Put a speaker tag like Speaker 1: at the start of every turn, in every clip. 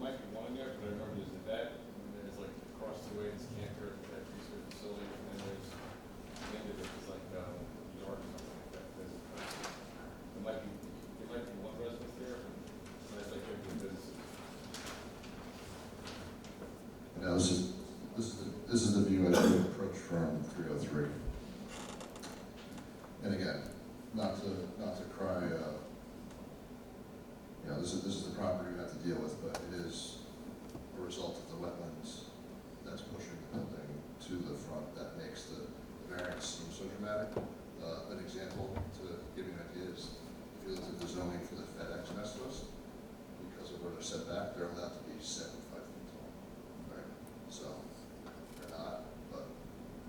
Speaker 1: might be one in there, but I remember there's the vet, and then it's like across the way, it's cancer, that research facility, and then there's, the end of it is like, um, yard or something like that. There's, there might be, there might be one residence there, but that's like, there's,
Speaker 2: Now, this is, this is, the- this is the view as we approach from three oh three. And again, not to, not to cry, uh, you know, this is, this is the property you have to deal with, but it is a result of the wetlands that's pushing the building to the front that makes the the variance seem so dramatic. Uh, an example to give you an idea is, if you look at the zoning for the FedEx nest list, because of where they're set back, they're allowed to be seventy-five feet tall. Right, so, they're not, but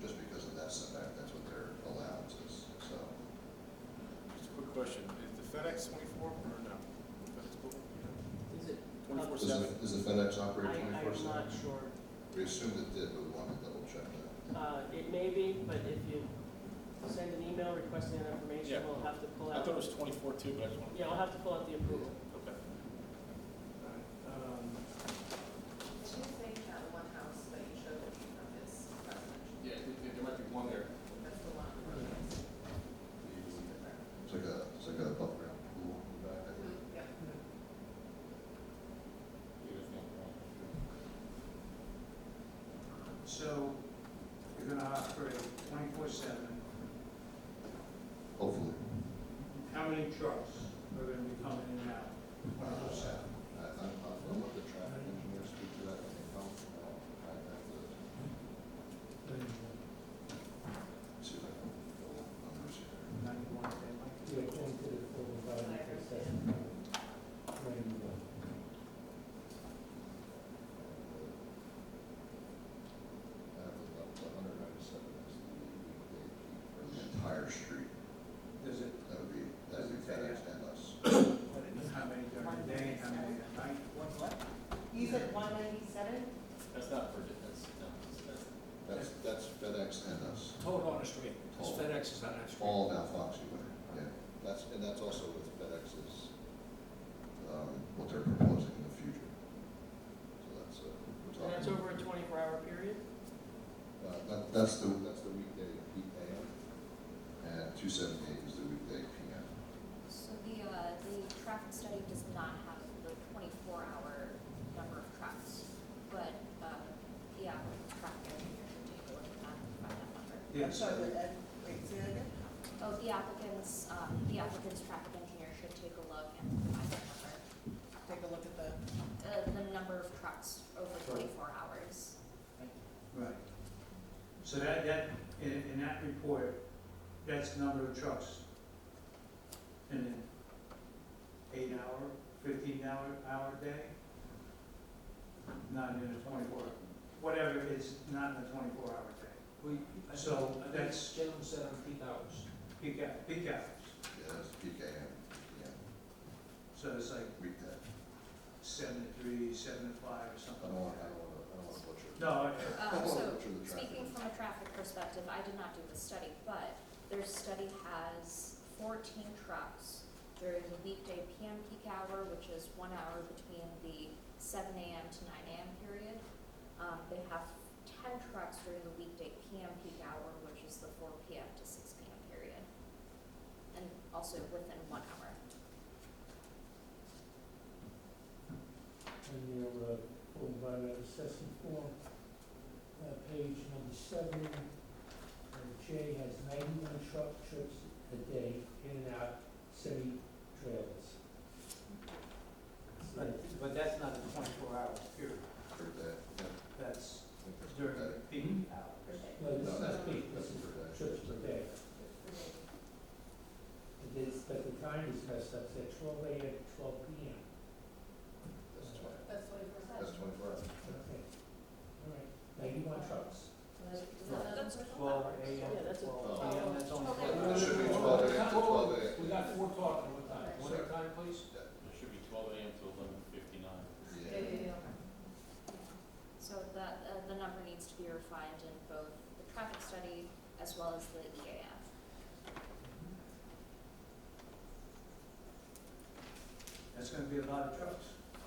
Speaker 2: just because of that setback, that's what their allowance is, so.
Speaker 1: just a quick question, is the FedEx twenty-four or no? FedEx building?
Speaker 3: Is it?
Speaker 1: Twenty-four
Speaker 2: Does
Speaker 1: seven?
Speaker 2: the- Does the FedEx
Speaker 3: I,
Speaker 2: operate
Speaker 3: I'm
Speaker 2: twenty-four seven?
Speaker 3: not sure.
Speaker 2: We assumed it did, but we wanted to double check that.
Speaker 3: Uh, it may be, but if you send an email requesting that information,
Speaker 1: Yeah.
Speaker 3: we'll have to pull
Speaker 1: I
Speaker 3: out.
Speaker 1: thought it was twenty-four too, but I just wanted.
Speaker 3: Yeah, we'll have to pull out the approval.
Speaker 1: Okay.
Speaker 3: Um,
Speaker 4: Did you say you had one house that you showed that you have this residential?
Speaker 1: Yeah, there, there might be one there.
Speaker 4: That's the one.
Speaker 2: It's like a, it's like a above ground pool in the back, I think.
Speaker 4: Yep.
Speaker 5: So you're gonna operate twenty-four seven.
Speaker 2: hopefully.
Speaker 5: How many trucks are gonna be coming in and out?
Speaker 2: Twenty-four seven. I, I'm, I'll let the traffic engineer speak to that, I think, I'll, i have to see if I can pull up numbers here.
Speaker 5: Ninety-one, they
Speaker 6: Yeah,
Speaker 5: might be.
Speaker 6: going to the full environmental assessment. When,
Speaker 2: I have the, the hundred ninety-seven is the, for the entire street,
Speaker 5: Does it,
Speaker 2: that would be, that would be FedEx and us.
Speaker 5: how many during the day, how many at night?
Speaker 7: What's what? You said one ninety-seven?
Speaker 1: That's not for, that's, no, that's.
Speaker 2: That's, that's FedEx and us.
Speaker 8: Total on the street, 'cause
Speaker 2: Total.
Speaker 8: FedEx is on that street.
Speaker 2: All of Alphoxi Way, yeah. That's, and that's also with FedEx's, um, what they're proposing in the future. So that's, uh,
Speaker 3: And
Speaker 2: we're
Speaker 3: that's
Speaker 2: talking,
Speaker 3: over a twenty-four hour period?
Speaker 2: uh, that, that's the, that's the weekday PM, and two seventy-eight is the weekday PM.
Speaker 9: So the, uh, the traffic study does not have the twenty-four hour number of trucks, but, uh, the applicant's traffic engineer should take a look at that and find that number.
Speaker 5: Yes.
Speaker 7: Sorry, but, uh, wait, say that again?
Speaker 9: Oh, the applicant's, um, the applicant's traffic engineer should take a look and find that number,
Speaker 7: Take a look at the,
Speaker 9: uh, the number of trucks over twenty-four hours.
Speaker 5: Right. So that, that, in, in that report, that's the number of trucks. In an eight hour, fifteen hour, hour day? Not in a twenty-four, whatever is not in a twenty-four hour day,
Speaker 8: We, I
Speaker 5: So
Speaker 8: think- I think
Speaker 5: that's-
Speaker 8: Jalen said on peak hours.
Speaker 5: peak out, peak hours.
Speaker 2: Yeah, that's PKM, yeah,
Speaker 5: So it's like
Speaker 2: weekday.
Speaker 5: seven to three, seven to five or
Speaker 2: I
Speaker 5: something.
Speaker 2: don't want,
Speaker 5: like
Speaker 2: I
Speaker 5: that.
Speaker 2: don't want to, I don't want to butcher. it.
Speaker 5: No, I-
Speaker 2: I don't wanna
Speaker 9: Uh, so
Speaker 2: butcher the traffic.
Speaker 9: Speaking from a traffic perspective, I did not do the study, but their study has fourteen trucks during the weekday PM peak hour, which is one hour between the seven AM to nine AM period. Um, they have ten trucks during the weekday PM peak hour, which is the four PM to six PM period. And also within one hour.
Speaker 6: when your, uh, full environmental assessment form, uh, page number seven, uh, J has ninety-one truck trips a day in and out city trailers. So,
Speaker 8: But, but that's not a twenty-four hours period,
Speaker 2: Per day, yeah, I
Speaker 5: that's
Speaker 2: think that's per
Speaker 5: during
Speaker 2: day.
Speaker 5: peak
Speaker 7: per
Speaker 5: hours.
Speaker 7: day.
Speaker 6: No,
Speaker 2: No,
Speaker 6: this
Speaker 2: that's,
Speaker 6: is peak, this
Speaker 2: that's
Speaker 6: is
Speaker 2: per day.
Speaker 6: trips per day. It is, but the time is messed up, it's at twelve AM to twelve PM.
Speaker 2: That's twenty,
Speaker 4: That's twenty-four
Speaker 2: that's twenty-four hours.
Speaker 6: Okay, all right, ninety-one trucks.
Speaker 9: That's
Speaker 5: Twelve
Speaker 3: Yeah,
Speaker 5: AM,
Speaker 3: that's a.
Speaker 5: twelve
Speaker 2: Oh.
Speaker 5: PM, that's only.
Speaker 9: Twelve
Speaker 5: four
Speaker 9: AM.
Speaker 2: It should be
Speaker 8: Whoa, whoa,
Speaker 2: twelve
Speaker 8: whoa,
Speaker 2: AM to
Speaker 8: whoa,
Speaker 2: twelve AM.
Speaker 8: We got four talking, one time, one at a time, please.
Speaker 1: It should be twelve AM to eleven fifty-nine.
Speaker 2: Yeah.
Speaker 9: So that, uh, the number needs to be refined in both the traffic study as well as the E EAF.
Speaker 5: That's gonna be a lot of trucks.